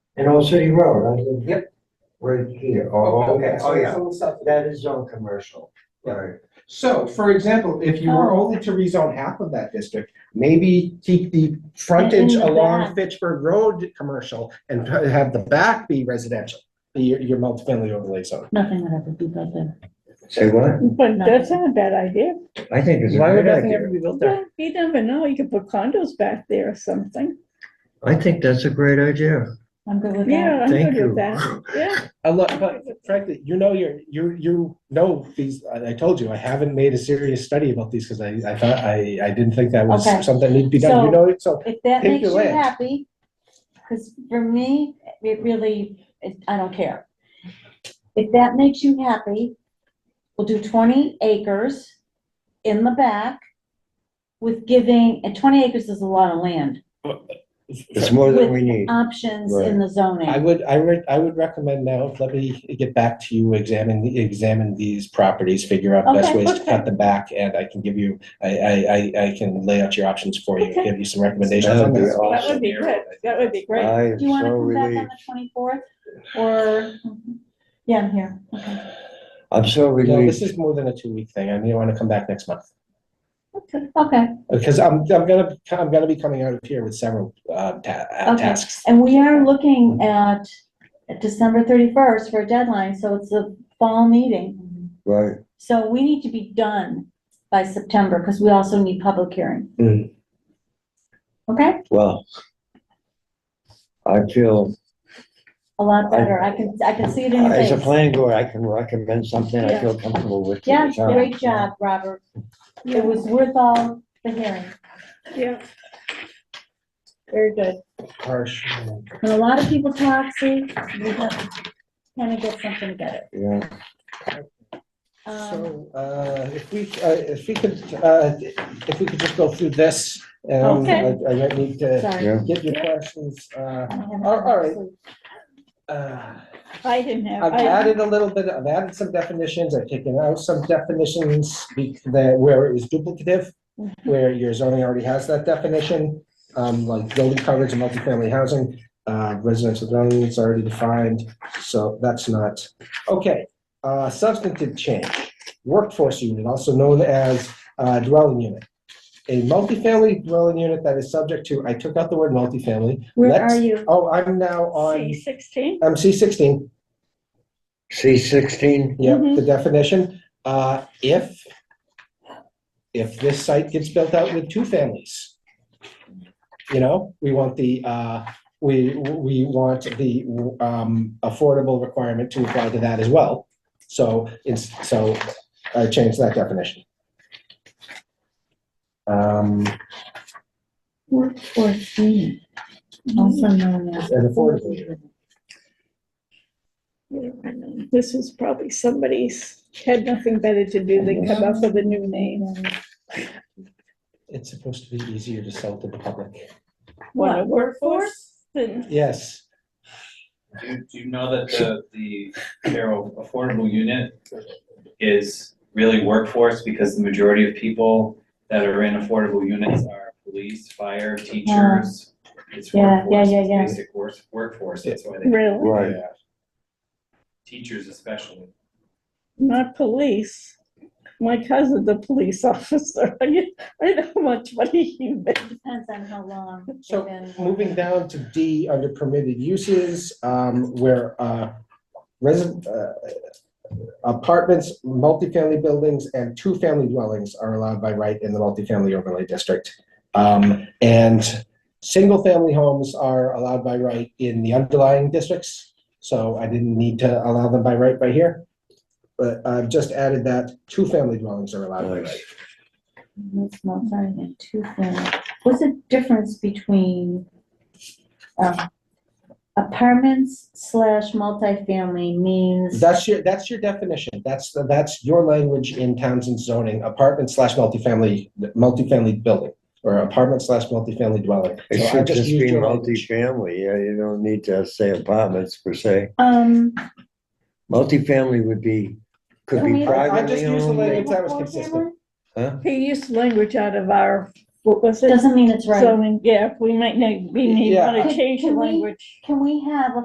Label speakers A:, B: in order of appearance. A: And Old City Road, I think.
B: Yep.
A: Right here, oh,
B: Okay,
A: okay,
B: oh,
A: so
B: yeah.
A: it's all stuff- that is zone commercial,
B: Yeah.
A: right?
B: So, for example, if you were only to rezone half of that district, maybe keep the frontage
C: And the
B: along
C: back.
B: Fitchburg Road commercial and p- have the back be residential, be your, your multifamily overlay zone.
C: Nothing would ever be built there.
A: Say what?
D: But that's not a bad idea.
A: I think it's a
E: Why would
A: great
E: nothing ever
A: idea.
E: be built there?
D: Yeah, You never know, you could put condos back there or something.
A: I think that's a great idea.
C: I'm good with that.
D: Yeah, I'm
A: Thank
D: good
A: you.
D: with that. Yeah,
B: I love, but frankly, you know, you're, you, you know, these, I, I told you, I haven't made a serious study about these because I, I thought, I, I didn't think that was
C: Okay.
B: something that needed to be done, you
C: So-
B: know, it, so.
C: If that
B: Pick
C: makes
B: your
C: you
B: land.
C: happy, because for me, it really, it- I don't care. If that makes you happy, we'll do twenty acres in the back with giving, and twenty acres is a lot of land,
A: It's more than we
C: um,
A: need.
C: options in the
B: I
C: zoning.
B: would, I would, I would recommend now, let me get back to you, examine, the examine these properties, figure out best
C: Okay,
B: ways to
C: okay.
B: cut them back, and I can give you, I, I, I, I can lay out your options for you,
C: Okay.
B: give you some recommendations.
A: That
B: on
A: would be
B: this.
D: that would be good. That would be great.
A: I am
C: Do you want
A: so
C: to come back on
A: relieved.
C: the twenty-fourth, or, yeah, I'm here, okay.
A: I'm so
B: No, this
A: relieved.
B: is more than a two-week thing, I mean, I wanna come back next month,
C: Okay, okay,
B: because I'm, I'm gonna, I'm gonna be coming out of here with several, uh, ta- uh,
C: Okay.
B: tasks.
C: and we are looking at December thirty-first for a deadline, so it's a fall meeting.
A: Right,
C: So we need to be done by September, because we also need public hearing.
B: Mm.
C: Okay,
A: well. I feel,
C: a lot better, I can, I can see it in your
A: as a
C: face.
A: planning board, I can recommend something I
D: Yeah.
A: feel comfortable with. to the
C: Yeah,
A: town.
C: great job, Robert, it was worth all the hearing,
D: Yeah. Very good.
B: Harsh.
C: and a lot of people talk, see, we have to kind of get something together.
A: Yeah,
C: Um,
B: So, uh, if we, uh, if we could, uh, if we could just go through this, um,
C: Okay.
B: I, I might need to
C: sorry.
A: yeah,
B: get your questions, uh,
C: I haven't-
B: All- all right. Uh,
D: I didn't have,
B: I've
D: I,
B: added a little bit, I've added some definitions, I've taken out some definitions be- that, where it was duplicative,
C: Mm-hmm.
B: where your zoning already has that definition, um, like building coverage and multifamily housing, uh, residential zoning is already defined, so that's not, okay. Uh, substantive change, workforce unit, also known as, uh, dwelling unit. A multifamily dwelling unit that is subject to, I took out the word multifamily.
C: Where
B: Let's-
C: are you?
B: Oh, I'm now on,
D: C sixteen,
B: I'm C sixteen,
A: C sixteen,
B: yeah,
D: Mhm.
B: the definition, uh, if, if this site gets built out with two families, you know, we want the, uh, we, we want the, um, affordable requirement to apply to that as well. So it's, so I changed that definition. Um,
C: Workforce unit, also known as.
B: and affordable, unit.
D: this was probably somebody's, had nothing better to do than come up with a new name.
B: it's supposed to be easier to sell to the public.
D: Want a workforce? Then
B: Yes,
F: Do do you know that the, the Carroll Affordable Unit is really workforce because the majority of people that are in affordable units are police, fire, teachers. It's
C: Yeah, yeah,
F: workforce,
C: yeah,
F: it's
C: yeah.
F: basic work, workforce, that's why they,
D: Really,
A: right.
F: teachers especially.
D: not police. My cousin's a police officer. I I know how much money he makes.
C: Depends on how long. they've
B: So,
C: been-
B: Moving down to D under permitted uses, um, where, uh, resident, uh, apartments, multifamily buildings and two-family dwellings are allowed by right in the multifamily overlay district. Um, and single-family homes are allowed by right in the underlying districts. So I didn't need to allow them by right by here. But I've just added that two-family dwellings are allowed by right.
C: It's not very good, two things. What's the difference between um, apartments slash multifamily means?
B: That's your, that's your definition. That's, the- that's your language in Townsend zoning, apartment slash multifamily, multifamily building, or apartment slash multifamily dwelling. So
A: It
B: I
A: should just
B: used
A: be
B: your language.
A: multifamily, yeah, you don't need to say apartments per se.
C: Um,
A: Multifamily would be, could
C: Can we-
A: be
C: I- I
A: privately
B: just use the language-
A: owned.
B: that was consistent.
A: huh?
D: He used language out of our, what was it?
C: doesn't mean it's right.
D: Zoning, yeah, we might need, we need
B: Yeah.
D: want
C: Can-
D: to change the
C: can we-
D: language.
C: Can we have a